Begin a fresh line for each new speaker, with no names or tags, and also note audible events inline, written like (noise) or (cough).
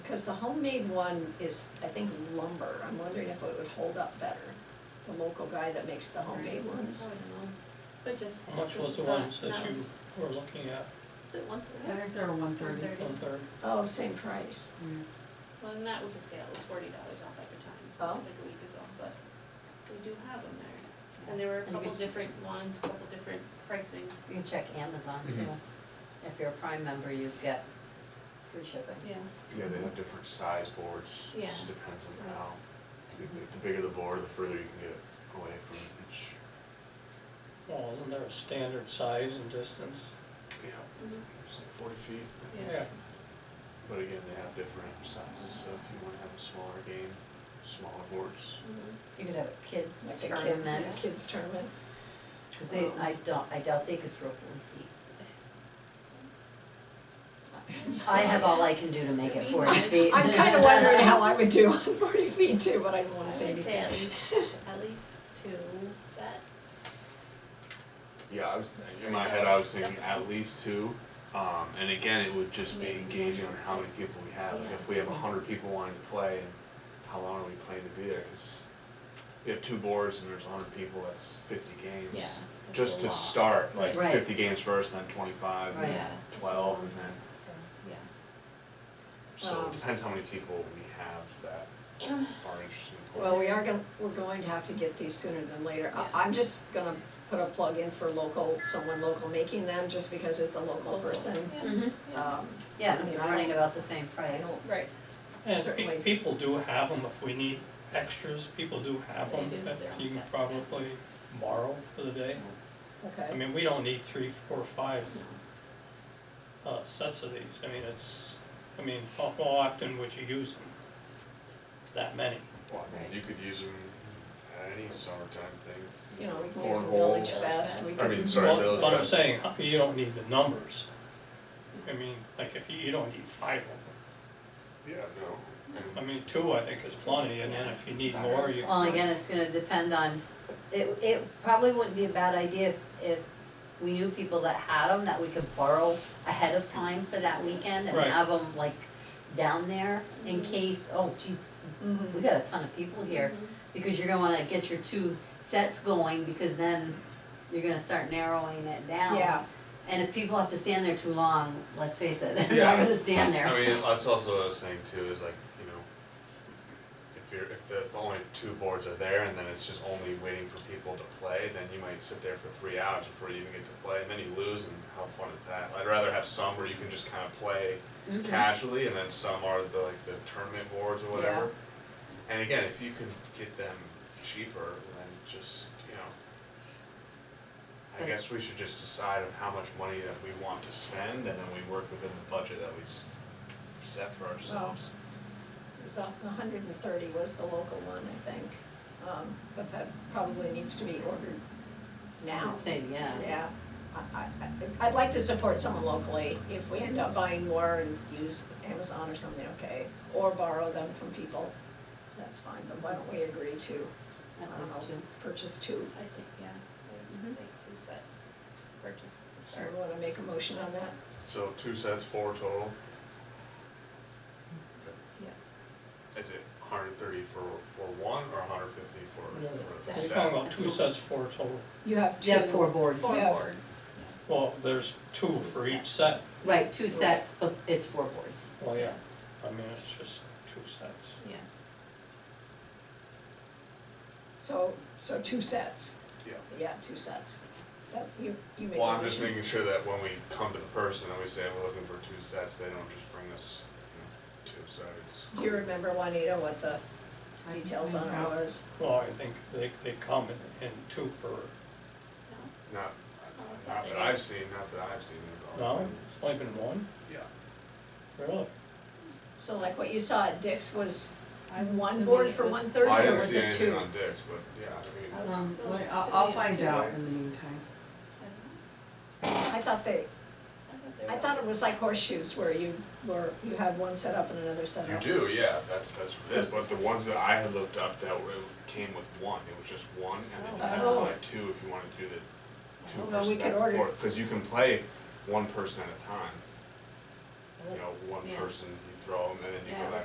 Cause the homemade one is, I think lumber, I'm wondering if it would hold up better, the local guy that makes the homemade ones.
Probably not. But just.
How much
just
was the one
thought
that you
was-
were looking at,
Was it one
I
thirty?
think they're one thirty.
Thirty.
one third?
Oh, same price,
Well, and that was a sale, it was forty dollars off at the time, it
Oh.
was like a week ago, but we do have them there. And there were a
And you
couple
could-
different ones, couple different pricing,
You can check Amazon too.
Mhm.
If you're a Prime member, you get free shipping.
yeah.
Yeah, they have different size boards,
Yeah.
it just depends on how, the, the- the bigger the board, the further you can get away from each,
Well, isn't there a standard size and distance?
yeah,
Mhm.
it's like forty feet, I think.
Yeah,
But again, they have different sizes, so if you wanna have a smaller game, smaller boards.
Mhm.
You could have a kids
like a
tournament,
kids,
Tournaments.
kids tournament.
cause they, I don't, I doubt they could throw forty feet. I have all I can do to
(laughs)
make it forty feet.
I'm kinda wondering how
(laughs)
I would do on forty feet too, but I don't
I
wanna
would
say anything.
say at least, at least two sets.
Yeah, I was, in my head, I was thinking at least two, um, and again, it would just be engaging on how many people we have, like if we have a hundred people wanting to play, and how long are we planning to be there, cause you have two boards and there's a hundred people, that's fifty games.
Yeah.
just
That's a
to
lot.
start, like
Right.
fifty games first, then twenty-five, and
Yeah.
then twelve, and then,
Yeah.
so
Um,
it depends how many people we have
(clears throat)
that are interested in playing.
Well, we are gonna, we're going to have to get these sooner than later.
Yeah.
I, I'm just gonna put a plug in for local, someone local making them, just because it's a local person.
Yeah. Mm-hmm.
hmm
Um,
yeah,
I mean,
it's
I
running
don't-
about the same
I
price.
don't,
Right.
and
Certainly.
pe- people do have them, if we need extras, people do have
They
them,
do,
that
they're on
you can
sets, yes.
probably borrow for the day. I
okay,
mean, we don't need three, four, five uh, sets of these, I mean, it's, I mean, how how often would you use them? That many,
Well, I mean, you could use them at any summertime thing,
you know, we can use a
Cornhole.
village fest, we
Village
can.
I mean, sorry,
Well,
those.
But I'm saying, huh, you don't need the numbers. I mean, like, if you, you don't need five of them,
Yeah, no, and
I mean, two, I think is plenty, and then if you need more, you.
Well, again, it's gonna depend on, it, it probably wouldn't be a bad idea if, if we knew people that had them, that we could borrow ahead of time for that weekend and
Right.
have them like down there in
Mhm.
Mm-hmm.
case, oh geez,
Mhm.
we got a ton of people here.
Mm-hmm.
Because you're gonna wanna get your two sets going, because then you're gonna start narrowing it down.
Yeah.
And if people have to stand there too long, let's face it, (laughs) they're
Yeah.
not gonna stand there.
I mean, that's also what I was saying too, is like, you know, if you're, if the, the only two boards are there and then it's just only waiting for people to play, then you might sit there for three hours before you even get to play, and then you lose, and how fun is that? I'd rather have some where you can just kind of play
Mhm.
casually, and then some are the, like, the tournament boards or whatever. And again, if you can get them cheaper, then just, you know, I
But-
guess we should just decide on how much money that we want to spend, and then we work within the budget that we s- set for ourselves.
It was a hundred and thirty was the local one, I think, um, but that probably needs to be ordered now.
I'd say, yeah.
Yeah, I, I, I- I'd like to support someone locally, if we end up buying more and use Amazon or something, okay, or borrow them from people, that's fine, but why don't we agree to, I
At
don't
least
know,
two.
purchase two?
I think, yeah, I would
Mhm.
think two sets to purchase at the
So
start.
we wanna make a motion on that?
So two sets, four total.
Yeah.
Is it hundred thirty for, for one, or hundred fifty
No,
for, for the
Set.
We're
set?
talking about two sets, four total,
You have two.
You have four boards.
Four. Yeah.
boards.
well, there's two for each set,
Right, two sets, but it's four boards.
well, yeah, I mean, it's just two sets.
Yeah,
So, so two sets,
Yeah.
yeah, two sets. That, you, you make a motion.
Well, I'm just making sure that when we come to the person and we say we're looking for two sets, they don't just bring us, you know, two sides.
Do you remember, Juanita, what the details on it was?
Well, I think they, they come in, in two per,
no,
Not,
Oh,
not that I've seen, not that I've seen at all.
no, it's only been one,
Yeah.
really?
So like what you saw at Dick's was
I was
one
assuming
board
it
for
was-
one
Well, I
thirty, or
didn't
was
see
it two?
anything on Dick's, but yeah, I mean.
I was
Um,
so
well, I'll,
assuming
I'll
it's
find
two
out
boards.
in the meantime.
I don't
I thought they,
know.
I
there
thought it was like horseshoes where you were, you had one set up and another set
You
up.
do, yeah, that's, that's what it is, but the ones that I had looked up that were, came with one, it was just one, and then you had to
Oh.
buy two if you wanted to do the two
Well, we
person
could
back and
order-
forth, cause you can play one person at a time. You know, one
Yeah.
person, you throw them, and then you
Yeah,
go back